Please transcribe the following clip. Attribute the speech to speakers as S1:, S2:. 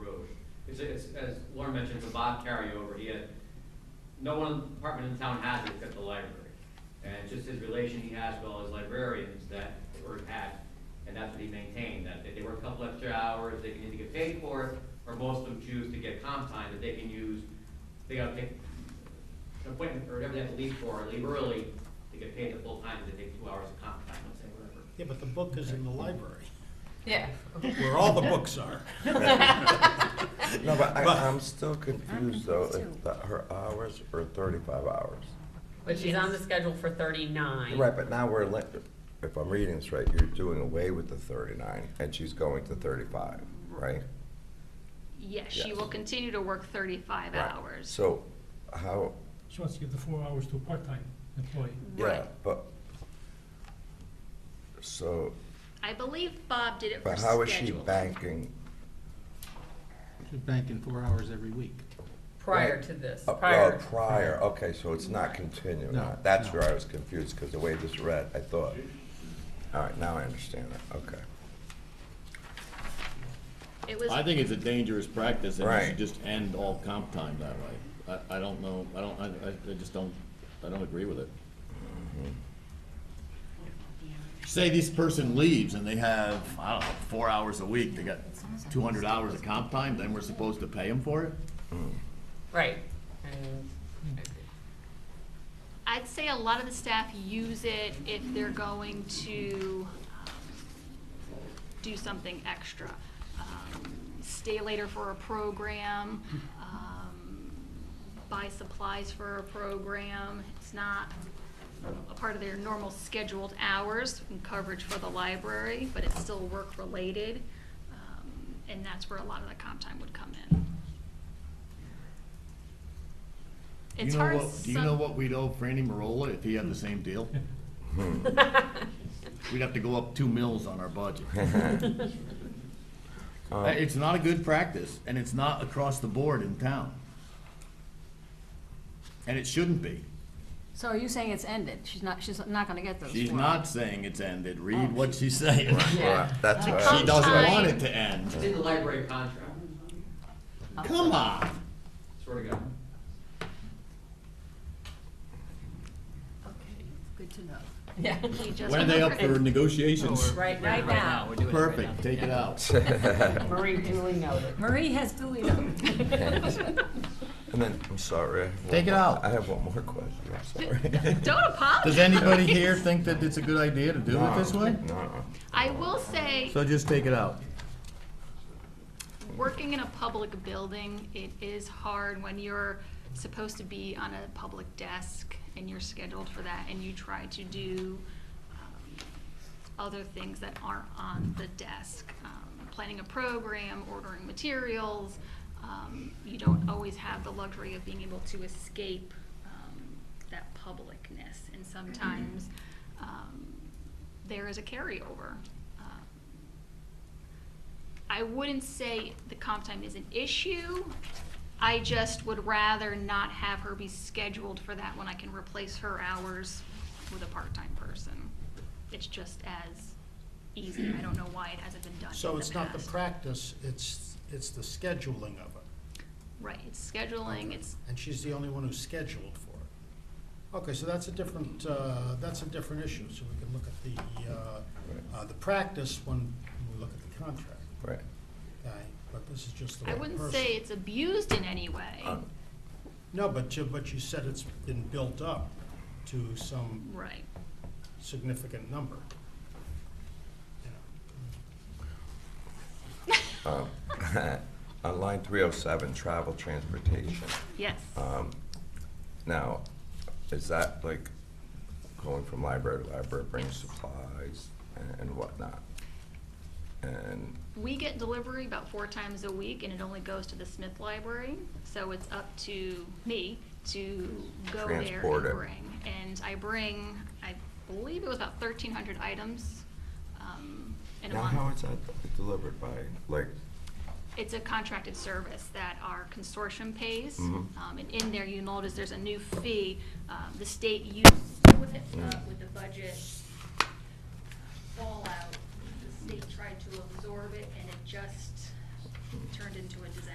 S1: It's, it's, as Lauren mentioned, it's a Bob carryover, he had, no one department in town has it except the library. And it's just his relation he has with all his librarians that, or had, and that's what he maintained, that they- they work a couple extra hours, they can either get paid for it, or most of them choose to get comp time that they can use, they gotta pick an appointment, or whatever they have to leave for, or leave early, to get paid the full time, they take two hours of comp time, let's say, whatever.
S2: Yeah, but the book is in the library,
S3: Yeah.
S2: where all the books are.
S4: No, but I,
S2: But-
S4: I'm still confused though,
S5: confused,
S4: if the- her hours are thirty-five hours.
S6: But she's on the schedule for thirty-nine.
S4: Right, but now we're, li- if I'm reading this right, you're doing away with the thirty-nine and she's going to thirty-five, right?
S5: Yes, she
S4: Yes.
S5: will continue to work thirty-five
S4: Right.
S5: hours.
S4: So how,
S7: She wants to give the four hours to a part-time employee.
S4: yeah,
S5: Right.
S4: but, so,
S5: I believe Bob did it for
S4: but
S5: scheduling.
S4: how is she banking?
S8: She's banking four hours every week.
S6: Prior to this,
S4: uh, well,
S6: prior.
S4: Prior, okay, so it's not continuing.
S8: No,
S4: That's
S8: no.
S4: where I was confused, because the way this read, I thought, all right, now I understand it, okay.
S5: It was,
S9: I think it's a dangerous practice, and you
S4: Right.
S9: should just end all comp time that way. I, I don't know, I don't, I, I- I just don't, I don't agree with it. Say this person leaves and they have, I don't know, four hours a week, they got two hundred hours of comp time, then we're supposed to pay them for it?
S6: Right. And
S5: I'd say a lot of the staff use it if they're going to um, do something extra. Um, Stay later for a program, um, buy supplies for a program. It's not a part of their normal scheduled hours and coverage for the library, but it's still work-related. Um, And that's where a lot of the comp time would come in.
S9: You
S5: It's
S9: know
S5: hard.
S9: what- Do you know
S5: some-
S9: what we'd owe Franny Marola if he had the same deal? We'd have to go up two mills on our budget. Uh, It's not a good practice, and it's not across the board in town. And it shouldn't be.
S3: So are you saying it's ended? She's not, she's not gonna get those
S9: She's
S3: four
S9: not saying it's ended, read what she's saying.
S4: Right, That's what I was-
S9: She doesn't want
S5: Sometime.
S9: it to end.
S1: It's in the library contract,
S9: Come on.
S1: swear to God.
S3: Okay, good to know.
S6: Yeah.
S5: We just-
S9: When are they up for negotiations?
S6: Right now.
S8: We're doing it right now.
S9: Perfect, take it out.
S6: Marie duly noted.
S3: Marie has duly noted.
S4: And then, I'm sorry. I have one
S9: Take it
S4: more-
S9: out.
S4: I have one more question, I'm sorry.
S5: Don't apologize.
S9: Does anybody here think that it's a good idea to do it this way?
S4: No,
S5: I will say,
S9: So just take it out.
S5: working in a public building, it is hard when you're supposed to be on a public desk and you're scheduled for that and you try to do um, other things that aren't on the desk. Um, Planning a program, ordering materials, um, you don't always have the luxury of being able to escape um, that publicness. And sometimes um, there is a carryover. Um, I wouldn't say the comp time is an issue. I just would rather not have her be scheduled for that when I can replace her hours with a part-time person. It's just as easy. I don't know why it hasn't been done in the past.
S2: So it's not the practice, it's, it's the scheduling of it.
S5: Right, it's scheduling, it's,
S2: And she's the only one who's scheduled for it. Okay, so that's a different, uh, that's a different issue, so we can look at the, uh, uh, the practice when we look at the contract,
S4: right.
S2: okay? But this is just the
S5: I
S2: one
S5: wouldn't
S2: person.
S5: say it's abused in any way.
S4: Um,
S2: No, but you, but you said it's been built up to some
S5: Right.
S2: significant number. You know.
S4: On line three oh seven, travel transportation,
S5: Yes.
S4: now, is that like going from library to library, bringing supplies and- and whatnot? And,
S5: We get delivery about four times a week, and it only goes to the Smith Library, so it's up to me to go there and
S4: Transport it.
S5: bring. And I bring, I believe it was about thirteen hundred items, um, in a
S4: now
S5: month.
S4: how is that delivered by, like,
S5: It's a contracted service that our consortium pays, um, and in there, you notice there's a new fee, um, the state uses with it, uh, with the budget uh, fallout, the state tried to absorb it, and it just turned into a disaster.